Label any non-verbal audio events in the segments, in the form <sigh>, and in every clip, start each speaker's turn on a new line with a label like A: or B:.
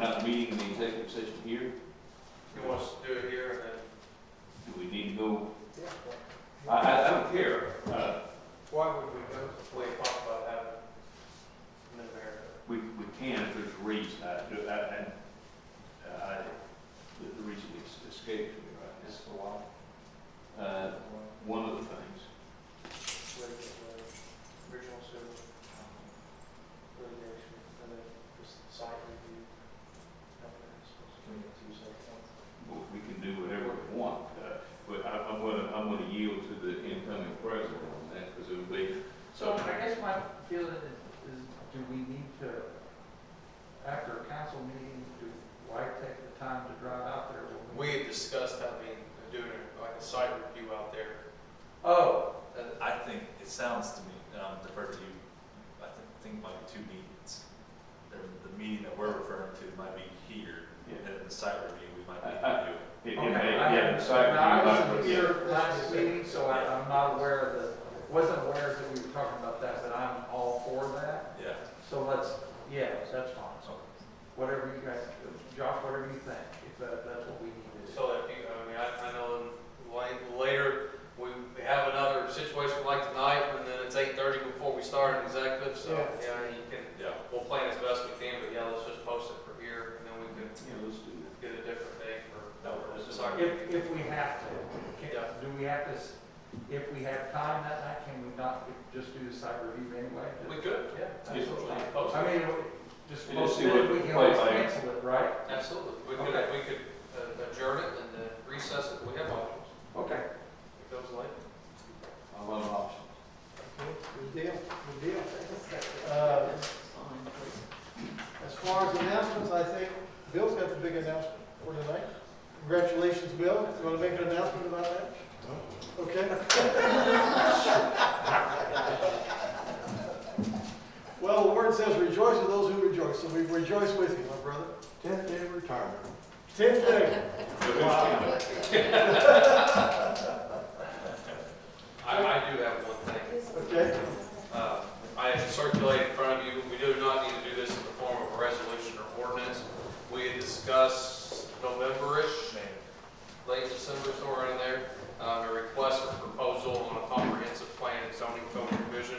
A: uh, meeting in the executive session here?
B: He wants to do it here and then.
A: Do we need to go? I, I, I don't care. Uh,
B: Why would we go to play pop about having mid-America?
A: we, we can if there's a reason. I, do- I, I, I, the the reason it's escaped me right
B: Just for a while.
A: now. Uh, one of the things,
B: the original sewer um, litigation, and then just site review.
A: Well, we can do whatever we want, uh, but I, I'm gonna, I'm gonna yield to the incoming president on that, because it'll be,
C: So
A: so,
C: I guess my feeling is, is do we need to, after a council meeting, do, why take the time to drive out there? when
B: We had discussed having, doing like a site review out there.
C: Oh,
D: Uh, I think, it sounds to me, and I'm defer to you, I thi- think might be two meetings. There- The meeting that we're referring to might be here,
A: Yeah.
D: and then the site review, we might be
A: I- I-
D: doing.
A: it, it
C: okay.
A: may,
C: I-
A: yeah, the site.
C: Now, I
A: review
C: wasn't
A: might-
C: here last meeting, so I, I'm not aware of the, wasn't aware that we were talking about that, but I'm all for that.
D: Yeah.
C: So let's, yeah, that's fine.
D: so-
C: Whatever you guys, Josh, whatever you think, if that, that's what we need to do.
B: So that, you know, I mean, I, I know in la- later, we we have another situation like tonight, and then it's eight thirty before we start an executive, so,
C: Yeah.
B: yeah, you can,
D: Yeah,
B: we'll plan as best we can, but yeah, let's just post it for here, and then we can
A: Yeah, let's do that.
B: get a different day for.
D: No, we're just-
B: Sorry.
C: If, if we have to, can-
B: Yeah.
C: do we have to, s- if we have time that night, can we not just do the site review anyway?
B: We could, yeah, absolutely, post
C: I
B: it,
C: mean, just
A: You just
C: post
A: see
C: it,
A: what-
C: we can
A: play
C: always
A: by ear.
C: cancel it, right?
B: absolutely, we could,
C: Okay.
B: we could uh, adjourn it and uh, recess it, we have options,
C: Okay.
B: it goes late.
A: I love options.
E: Good deal, good deal. Uh, As far as announcements, I think Bill's got the big announcement for tonight. Congratulations, Bill. You want to make an announcement about that? Okay. <laughs> Well, the word says rejoice with those who rejoice, so we rejoice with you, my brother.
F: Tenth day of retirement.
E: Tenth day.
A: Wow.
B: I, I do have one thing,
E: Okay.
B: uh, I circulate in front of you, we do not need to do this in the form of a resolution or ordinance, we had discussed November-ish,
D: Shane.
B: late December, somewhere in there, um, a request for proposal on a comprehensive plan and zoning code revision.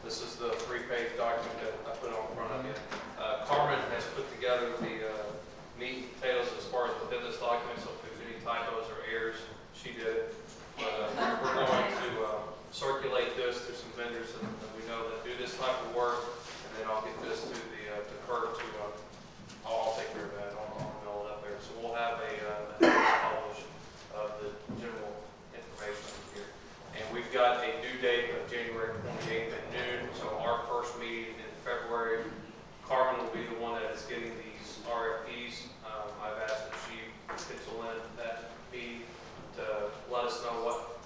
B: This is the three-page document that I put on front of you. Uh, Carmen has put together the, uh, meat and potatoes as far as within this document, so if there's any typos or errors, she did. it. But, uh, we're- we're going to, uh, circulate this to some vendors that that we know that do this type of work, and then I'll get this to the, uh, to Kurt to, uh, I'll I'll take care of that, I'll, I'll mail it up there. So we'll have a, uh, a notice published of the general information here. And we've got a due date of January twenty-eighth at noon, so our first meeting in February, Carmen will be the one that is getting these RFPs. Um, I've asked that she pencil in that meeting to let us know what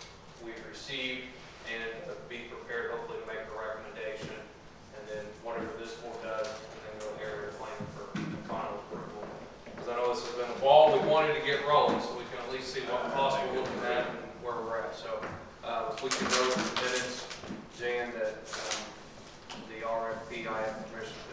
B: we've received and to be prepared hopefully to make a recommendation. And then whatever this board does, and then go area plan for final approval. Because I know this has been a ball we wanted to get rolling, so we can at least see what costs we're looking at and where we're at. So, uh, if we can go to the minutes, Jan, that, um, the RFP I have permission